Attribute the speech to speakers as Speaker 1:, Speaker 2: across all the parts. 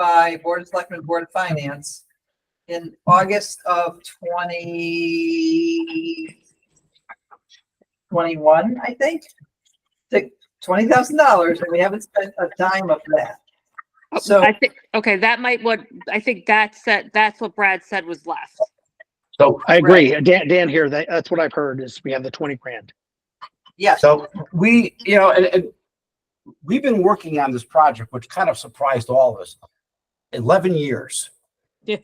Speaker 1: by Board of Selectmen, Board of Finance in August of twenty twenty-one, I think. To twenty thousand dollars, and we haven't spent a dime of that. So,
Speaker 2: I think, okay, that might what, I think that's that, that's what Brad said was left.
Speaker 3: So, I agree. Dan, Dan here, that, that's what I've heard is we have the twenty grand.
Speaker 1: yes,
Speaker 4: So we, you know, and, and we've been working on this project, which kind of surprised all of us. Eleven years.
Speaker 2: Yeah.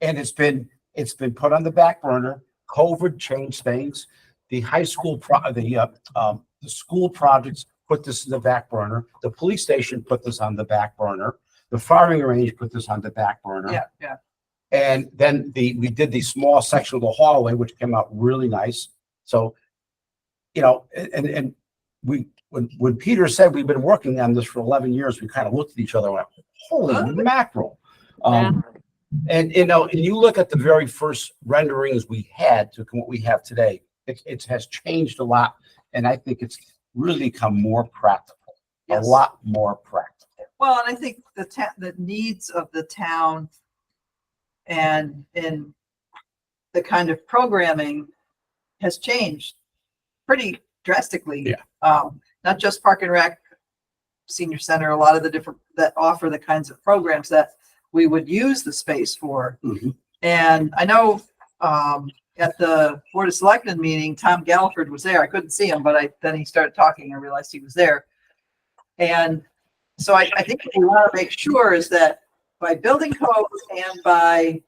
Speaker 4: And it's been, it's been put on the back burner. COVID changed things. The high school pro, the, uh, um, the school projects put this in the back burner. The police station put this on the back burner. The firing range put this on the back burner.
Speaker 1: yeah, yeah.
Speaker 4: And then the, we did the small section of the hallway, which came out really nice. So, you know, a- and, and we, when, when Peter said we've been working on this for eleven years, we kind of looked at each other and went, holy mackerel. Um, and, you know, and you look at the very first renderings we had to what we have today, it, it has changed a lot. And I think it's really become more practical, a
Speaker 1: Yes.
Speaker 4: lot more practical.
Speaker 1: Well, and I think the ta- the needs of the town and in the kind of programming has changed pretty drastically.
Speaker 4: Yeah.
Speaker 1: Um, not just Park and Rec, Senior Center, a lot of the different, that offer the kinds of programs that we would use the space for.
Speaker 4: Mhm.
Speaker 1: And I know, um, at the Board of Selectmen meeting, Tom Galliford was there. I couldn't see him, but I, then he started talking. I realized he was there. And so I, I think what we want to make sure is that by building codes and by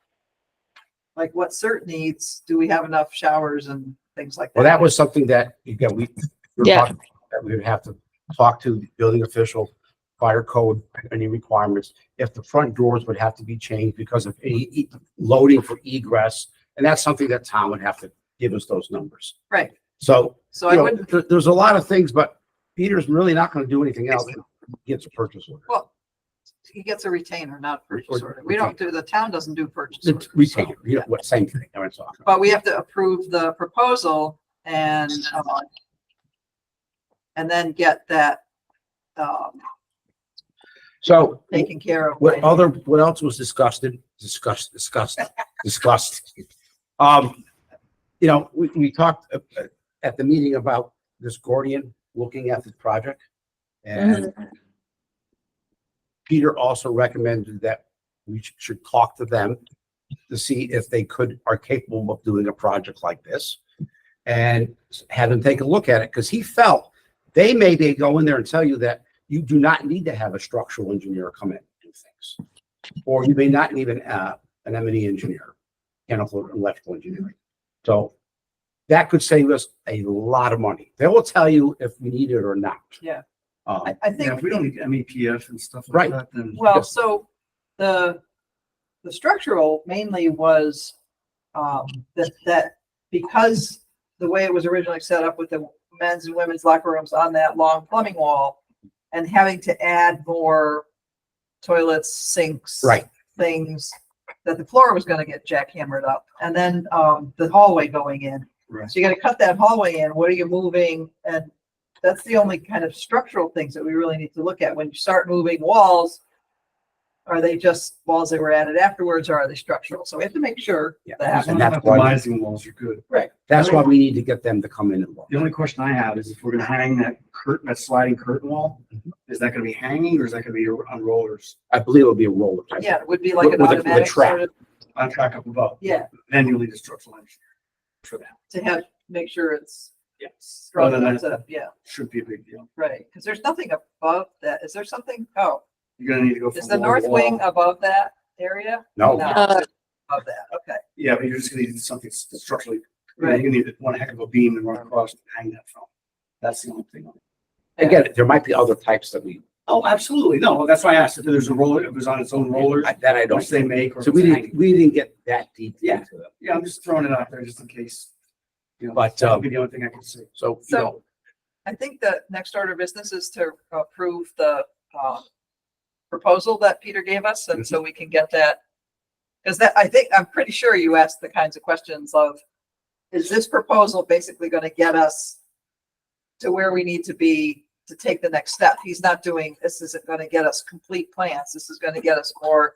Speaker 1: like what CERT needs, do we have enough showers and things like that?
Speaker 4: Well, that was something that, again, we. we were
Speaker 2: Yeah.
Speaker 4: talking about, That we would have to talk to the building official, fire code, any requirements, if the front doors would have to be changed because of any e- loading for egress. And that's something that Tom would have to give us those numbers.
Speaker 1: Right.
Speaker 4: So,
Speaker 1: So
Speaker 4: you
Speaker 1: I
Speaker 4: know,
Speaker 1: wouldn't,
Speaker 4: there- there's a lot of things, but Peter's really not gonna do anything else. Gets a purchase order.
Speaker 1: well, he gets a retainer, not a purchase
Speaker 4: Or-
Speaker 1: order. We don't do, the town doesn't do purchase orders.
Speaker 4: It's retainer, you know, what, same thing, I was talking.
Speaker 1: But we have to approve the proposal and, uh, and then get that, um,
Speaker 4: So,
Speaker 1: taken care of.
Speaker 4: What other, what else was disgusted, discussed, discussed, discussed? Um, you know, we, we talked uh, uh, at the meeting about this Gordian looking at this project. And Peter also recommended that we sh- should talk to them to see if they could, are capable of doing a project like this. And have them take a look at it, because he felt they may, they go in there and tell you that you do not need to have a structural engineer come in and do things. Or you may not need an, uh, an M and E engineer, mechanical and electrical engineering. So that could save us a lot of money. They will tell you if we need it or not.
Speaker 1: Yeah.
Speaker 4: Um,
Speaker 1: I, I
Speaker 5: Yeah,
Speaker 1: think,
Speaker 5: if we don't need MEPF and stuff
Speaker 4: Right.
Speaker 5: like that, then.
Speaker 1: well, so the, the structural mainly was, um, that, that because the way it was originally set up with the men's and women's locker rooms on that long plumbing wall and having to add more toilets, sinks.
Speaker 4: right,
Speaker 1: things that the floor was gonna get jackhammered up, and then, um, the hallway going in.
Speaker 5: Right.
Speaker 1: So you gotta cut that hallway in, what are you moving, and that's the only kind of structural things that we really need to look at, when you start moving walls. Are they just walls that were added afterwards, or are they structural, so we have to make sure
Speaker 4: Yeah.
Speaker 5: As
Speaker 1: that,
Speaker 5: long
Speaker 4: And
Speaker 5: as
Speaker 4: that's why-
Speaker 5: Compromising walls are good.
Speaker 4: that's why we need to get them to come in and look.
Speaker 5: The only question I have is if we're gonna hang that curtain, that sliding curtain wall, is that gonna be hanging or is that gonna be on rollers?
Speaker 4: I believe it'll be a roller. type.
Speaker 1: yeah, it would be like an
Speaker 4: With- with a- with a
Speaker 1: automatic
Speaker 4: trap.
Speaker 1: sort of,
Speaker 5: On track up above?
Speaker 1: yeah,
Speaker 5: Then you need a structural engineer for that.
Speaker 1: to have, make sure it's.
Speaker 5: Yes.
Speaker 1: strong
Speaker 4: Oh,
Speaker 5: Rather
Speaker 1: enough
Speaker 5: than,
Speaker 1: to- Yeah,
Speaker 5: should be a big deal.
Speaker 1: right, because there's nothing above that, is there something, oh,
Speaker 5: You're gonna need to go.
Speaker 1: is
Speaker 5: from
Speaker 1: the
Speaker 5: wall
Speaker 1: north
Speaker 5: to
Speaker 1: wing
Speaker 5: wall.
Speaker 1: above that area?
Speaker 4: No,
Speaker 1: No.
Speaker 2: Uh,
Speaker 1: of that, okay.
Speaker 5: Yeah, but you're just gonna need something s- structurally, you know,
Speaker 1: Right.
Speaker 5: you need one heck of a beam to run across and hang that from. That's the only thing.
Speaker 4: again, there might be other types that we,
Speaker 5: Oh, absolutely. No, that's why I asked if there's a roller, if it was on its own rollers.
Speaker 4: I- that I
Speaker 5: Which
Speaker 4: don't.
Speaker 5: they make. or
Speaker 4: So we
Speaker 5: it's hanging.
Speaker 4: didn't, we didn't get that deep
Speaker 5: Yeah.
Speaker 4: into it.
Speaker 5: Yeah, I'm just throwing it out there just in case. You know,
Speaker 4: But,
Speaker 5: that
Speaker 4: um,
Speaker 5: would be the only thing I can say.
Speaker 4: So, you
Speaker 1: So-
Speaker 4: know,
Speaker 1: I think the next order of business is to approve the, um, proposal that Peter gave us, and so we can get that. Cause that, I think, I'm pretty sure you asked the kinds of questions of, is this proposal basically gonna get us to where we need to be to take the next step. He's not doing, this isn't gonna get us complete plans. This is gonna get us more